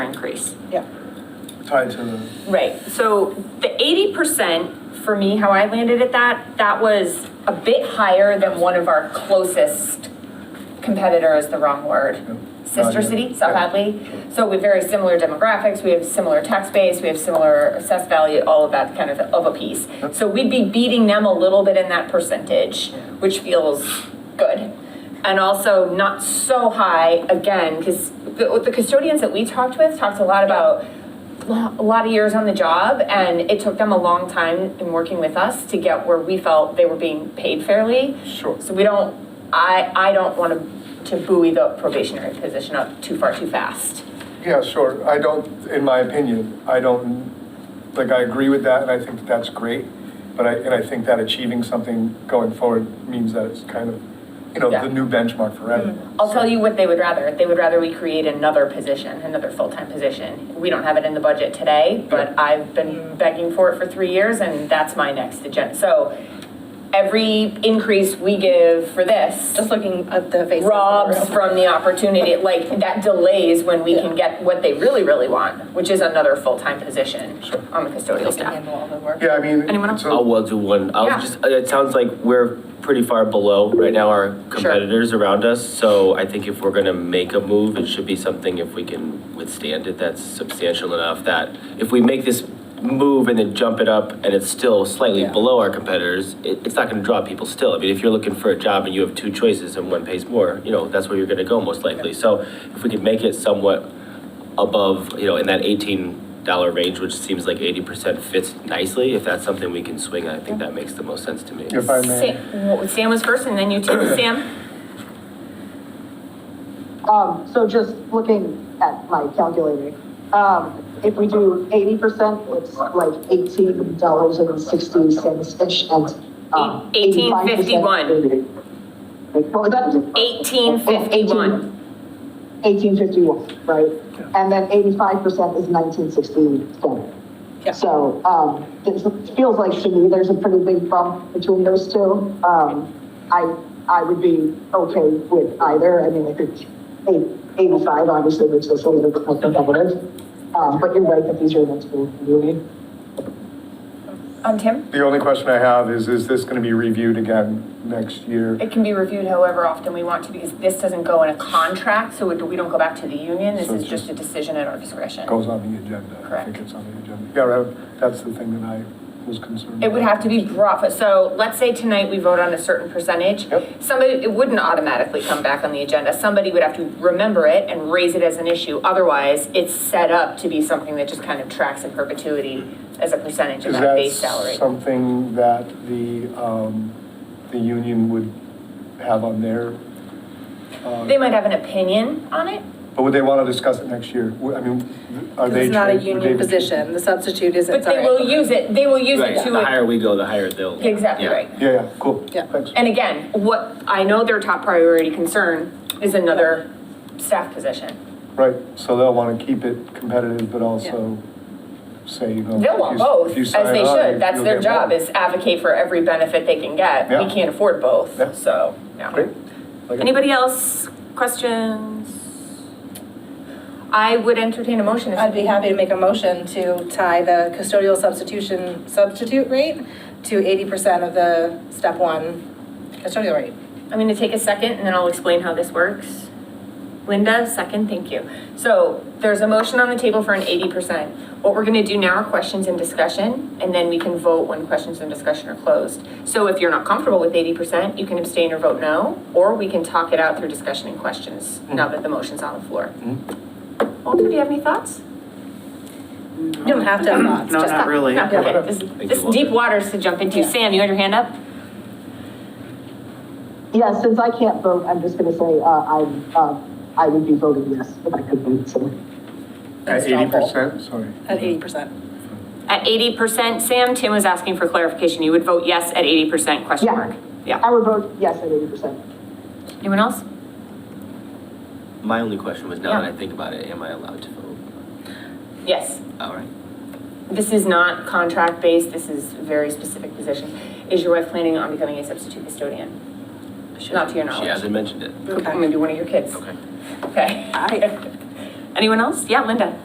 increase. tied to the, Right, so the eighty percent, for me, how I landed at that, that was a bit higher than one of our closest competitor is the wrong Yep. word. Sister Adley. city, South Yep. Hadley, so with very similar demographics, we have similar tax base, we have similar assessed value, all of that kind of, of a piece. Yep. So we'd be beating them a little bit in that percentage, which feels good. And also not so high, again, because the, the custodians that we talked with talked a lot about lo- a lot of years on the job and it took them a long time in working with us to get where we felt they were being paid fairly. Sure. So we don't, I, I don't want to, to buoy the probationary position up too far too fast. yeah, sure. I don't, in my opinion, I don't, like, I agree with that, and I think that that's great. But I, and I think that achieving something going forward means that it's kind of, you know, Yeah. Mm-hmm. the new benchmark for everyone. I'll tell you what they would rather. They would rather we create another position, another full-time position. We don't have it in the budget today, but I've been begging for it for three years and that's my next agenda. So every increase we give for this. Just looking at uh, the face. robs from the opportunity, like, that delays when we can get what they really, really want, which is another full-time position on the custodial staff. Handle all the work. Yeah, I mean. Anyone else? it's a- I'll well do one. I Yeah. was just, uh, it sounds like we're pretty far below right now our competitors around us. So I think if we're gonna make a move, it should be something if we can withstand it, that's substantial enough that if we make this move and then jump it up and it's still slightly Yeah. below our competitors, it, it's not gonna draw people still. I mean, if you're looking for a job and you have two choices and one pays more, you know, that's where you're gonna go most likely. So if we could make it somewhat above, you know, in that eighteen dollar range, which seems like eighty percent fits nicely, if that's something we can swing, I think that makes the most sense to me. If I may. Sam wh- Sam was first, and then you two, Sam? Um, so just looking at my calculator, um, if we do eighty percent, it's like eighteen dollars and sixty cents-ish and, um. Eight- 18.51. 85%. Well, that- Eighteen fifty-one. Eighteen fifty-one, right? And then eighty-five percent is nineteen sixty-seven. Yeah. So, um, this feels like to me, there's a pretty big bump between those two. Um, I, I would be okay with either. I mean, I think eight- eighty-five obviously makes us a little bit more competitive. Um, but you're right that these are the next two, really. Um, Tim? The only question I have is, is this gonna be reviewed again next year? It can be reviewed however often we want to, because this doesn't go in a contract, so it- we don't go back to the union. This So is it's just a decision at our discretion. Goes on the agenda. I Correct. think it's on the agenda. Yeah, right, that's the thing that I was concerned. It would about. have to be brought, but so let's say tonight we vote on a certain percentage. Yep. Somebody, it wouldn't automatically come back on the agenda. Somebody would have to remember it and raise it as an issue. Otherwise, it's set up to be something that just kind of tracks in perpetuity as a percentage of Is that base salary. that something that the, um, the union would have on their? uh, They might have an opinion on it. But would they want to discuss it next year? Would- I mean, are Because they? it's not a trained- would they union be- position, the substitute But isn't, they sorry. will use it, they will use Right, it to. the higher we go, the higher they'll. Exactly Yeah. right. Yeah, yeah, cool. Yeah. Thanks. And again, what, I know their top priority concern is another staff position. Right, so they'll want to keep it competitive, but also say, you know. They'll if want you- both, if you as sign they on, should. you- That's you'll their get job, more. is advocate for every benefit they can get. Yeah. We can't afford Yeah. both, so, yeah. Great. Like it. Anybody else, questions? I would entertain a motion if. I'd be happy to make a motion to tie the custodial substitution, substitute rate to eighty percent of the step one custodial rate. I'm gonna take a second and then I'll explain how this works. Linda, second, thank you. So there's a motion on the table for an eighty percent. What we're gonna do now are questions and discussion, and then we can vote when questions and discussion are closed. So if you're not comfortable with eighty percent, you can abstain or vote no, or we can talk it out through discussion and questions Mm-hmm. now that the motion's on the floor. Walter, do you have any thoughts? You don't have to have thoughts, No, just- not really. No, okay. This you, this is deep waters to jump into. Yeah. Sam, you had your hand up? Yeah, since I can't vote, I'm just gonna say, uh, I'm, uh, I would be voting yes if I could vote, so. At That's doable. eighty percent, sorry. at eighty percent. At eighty percent, Sam, Tim was asking for clarification. You would vote yes at eighty percent, question Yeah. mark? Yeah. I would vote yes at eighty percent. Anyone else? My only question was, now that Yeah. I think about it, am I allowed to vote? Yes. All right. This is not contract-based, this is a very specific position. Is your wife planning on becoming a substitute custodian? She Not to your hasn't- knowledge. She hasn't mentioned it. Okay. Maybe one of your kids? Okay. Okay. Anyone else? Yeah, Linda?